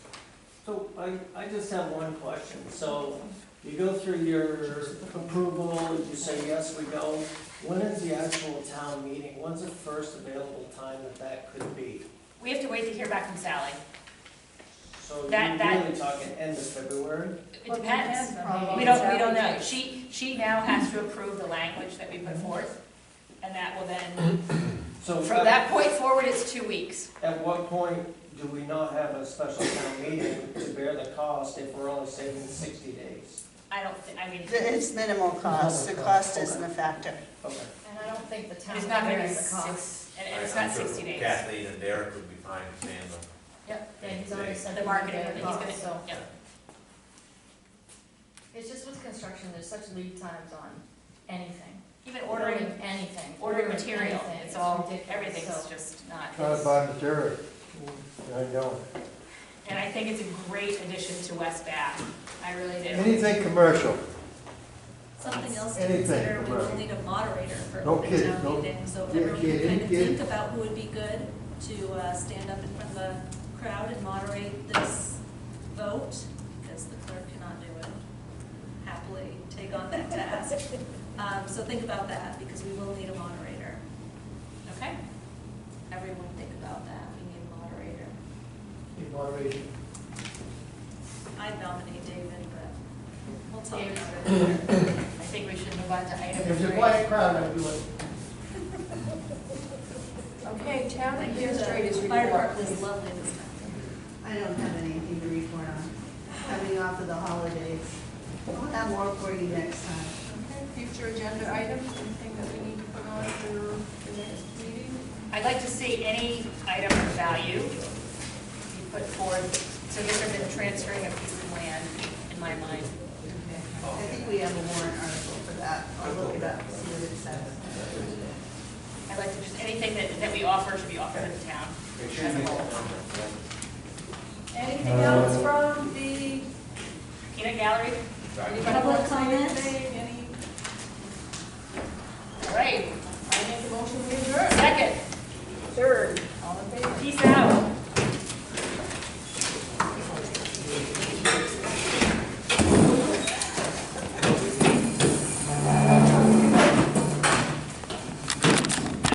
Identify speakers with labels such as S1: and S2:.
S1: So I, I just have one question. So you go through your approval, you say, yes, we go. When is the actual town meeting? When's the first available time that that could be?
S2: We have to wait to hear back from Sally.
S1: So
S2: That-
S1: you're
S2: that-
S1: really talking end of February?
S2: It depends.
S3: probably.
S2: We don't, we don't know. She, she now has to approve the language that we put forth, and that will then,
S1: So
S2: from that point forward, it's two weeks.
S1: At what point do we not have a special town meeting to bear the cost if we're only saving sixty days?
S2: I don't, thi- I mean,
S4: It's minimal cost, the cost isn't a factor.
S1: Okay.
S3: And I don't think the town
S2: it's not gonna be
S3: carries the cost.
S2: six, and and it's
S5: I'm
S2: not
S5: sure
S2: sixty days.
S5: Kathleen and Derek would be fine with handling.
S3: Yep, and he's already said.
S2: The marketing,
S3: that
S2: he's
S3: he's gonna-
S2: gonna, yeah.
S3: It's just with construction, there's such lead times on anything.
S2: Even ordering,
S3: Anything.
S2: ordering material,
S3: anything,
S2: it's all,
S3: ridiculous,
S2: everything's
S3: so-
S2: just not.
S6: Trying to buy material. I know.
S2: And I think it's a great addition to West Bath. I really do.
S6: Anything commercial,
S7: Something else to
S6: Anything,
S7: consider, we
S6: right.
S7: will need a moderator for
S6: No
S7: open
S6: kidding, no-
S7: town meeting, so if
S6: yeah,
S7: everyone can
S6: kidding,
S7: kind of
S6: kidding.
S7: think about who would be good to uh, stand up in front of the crowd and moderate this vote, because the clerk cannot do it, happily take on that task. Um, So think about that, because we will need a moderator.
S2: Okay,
S7: Everyone think about that, we need a moderator.
S1: Moderation.
S7: I'd nominate David, but we'll talk
S2: David's
S7: about it.
S2: I think we should move on to item three.
S1: crowd, I'd do it.
S3: Okay, town
S7: The Fire department is lovely this time.
S8: I don't have anything to report on, coming off of the holidays. I'll have more for you next time.
S9: Okay, future agenda items, anything that we need to put on for the next meeting?
S2: I'd like to see any item of value be put forth, so this has been transferring a piece of land in my mind.
S8: I think we have a warrant article for that, I'll look it up, see what it says.
S2: I'd like to just, anything that, that we offer should be offered in town.
S5: Make sure you
S2: as a
S5: make
S2: whole.
S7: Anything else from the
S2: Peanut gallery?
S5: Sorry.
S7: public comment?
S9: Any